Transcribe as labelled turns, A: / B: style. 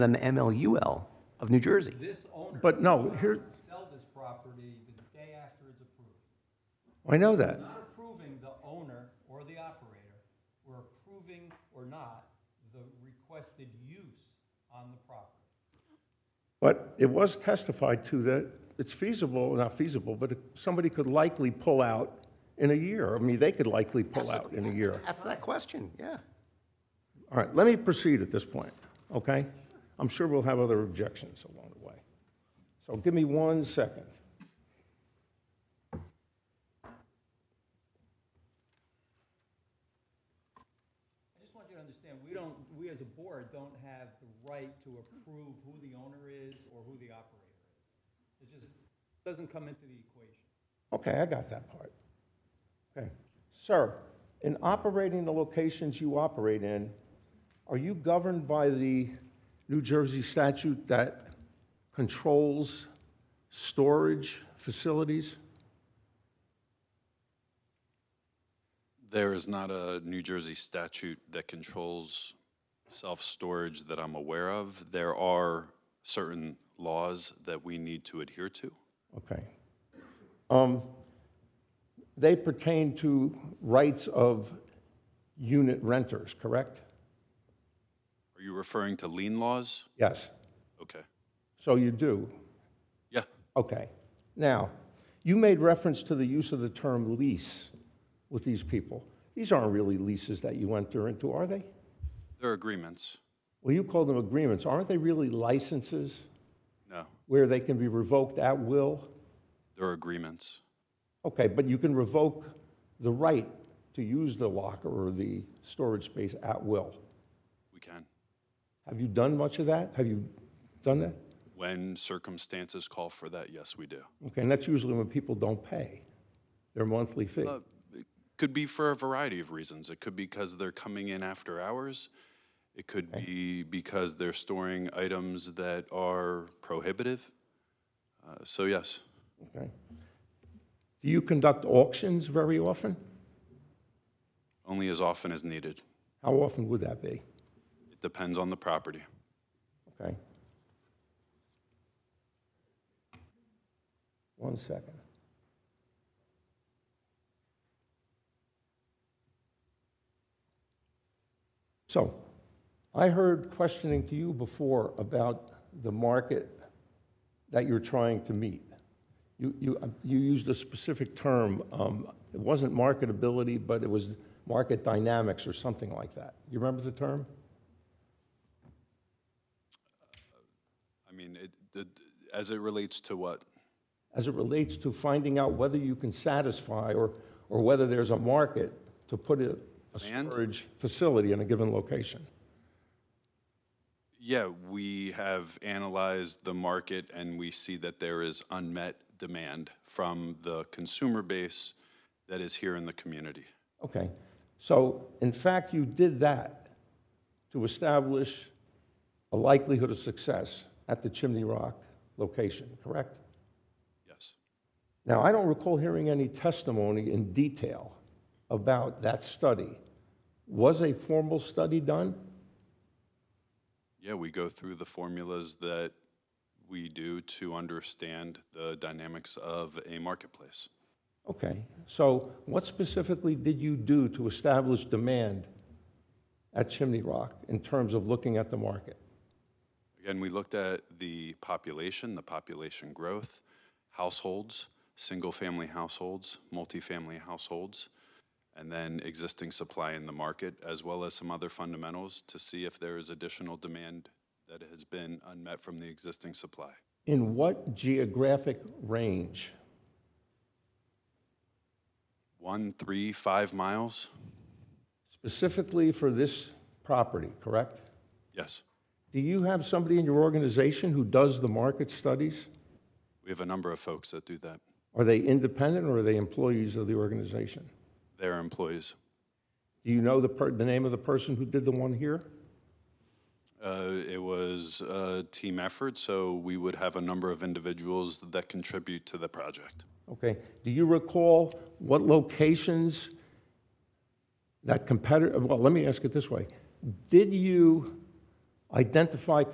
A: than the MLUL of New Jersey.
B: This owner.
C: But no, here-
B: Sell this property the day after it's approved.
C: I know that.
B: Not approving the owner or the operator, we're approving or not the requested use on the property.
C: But it was testified to that it's feasible, not feasible, but somebody could likely pull out in a year. I mean, they could likely pull out in a year.
A: That's that question, yeah.
C: All right, let me proceed at this point, okay? I'm sure we'll have other objections along the way. So give me one second.
B: I just want you to understand, we don't, we as a board don't have the right to approve who the owner is or who the operator is. It just doesn't come into the equation.
C: Okay, I got that part. Okay. Sir, in operating the locations you operate in, are you governed by the New Jersey statute that controls storage facilities?
D: There is not a New Jersey statute that controls self-storage that I'm aware of. There are certain laws that we need to adhere to.
C: Okay. Um, They pertain to rights of unit renters, correct?
D: Are you referring to lien laws?
C: Yes.
D: Okay.
C: So you do.
D: Yeah,
C: Okay. Now, you made reference to the use of the term lease with these people. These aren't really leases that you enter into, are they?
D: there are agreements.
C: Well, you call them agreements. Aren't they really licenses
D: No,
C: where they can be revoked at will?
D: there are agreements.
C: Okay, but you can revoke the right to use the locker or the storage space at will.
D: We can,
C: Have you done much of that? Have you done that?
D: when circumstances call for that, yes, we do.
C: Okay, and that's usually when people don't pay their monthly fee.
D: Could be for a variety of reasons. It could be because they're coming in after hours. It could be because they're storing items that are prohibitive. Uh, So yes.
C: Okay. Do you conduct auctions very often?
D: Only as often as needed.
C: How often would that be?
D: It depends on the property.
C: Okay. One second. So, I heard questioning to you before about the market that you're trying to meet. You, you, uh, you used a specific term, um, it wasn't marketability, but it was market dynamics or something like that. You remember the term?
D: I mean, it, the- as it relates to what?
C: as it relates to finding out whether you can satisfy or, or whether there's a market to put a, a
D: Demand?
C: storage facility in a given location.
D: Yeah, we have analyzed the market and we see that there is unmet demand from the consumer base that is here in the community.
C: Okay, so in fact, you did that to establish a likelihood of success at the Chimney Rock location, correct?
D: Yes.
C: Now, I don't recall hearing any testimony in detail about that study. Was a formal study done?
D: Yeah, we go through the formulas that we do to understand the dynamics of a marketplace.
C: Okay, so what specifically did you do to establish demand at Chimney Rock in terms of looking at the market?
D: Again, we looked at the population, the population growth, households, single-family households, multifamily households, and then existing supply in the market, as well as some other fundamentals to see if there is additional demand that has been unmet from the existing supply.
C: In what geographic range?
D: One, three, five miles?
C: Specifically for this property, correct?
D: Yes.
C: Do you have somebody in your organization who does the market studies?
D: We have a number of folks that do that.
C: Are they independent or are they employees of the organization?
D: They're employees.
C: Do you know the, per- the name of the person who did the one here?
D: Uh, It was a team effort, so we would have a number of individuals that contribute to the project.
C: Okay, do you recall what locations that competitor, well, let me ask it this way. Did you identify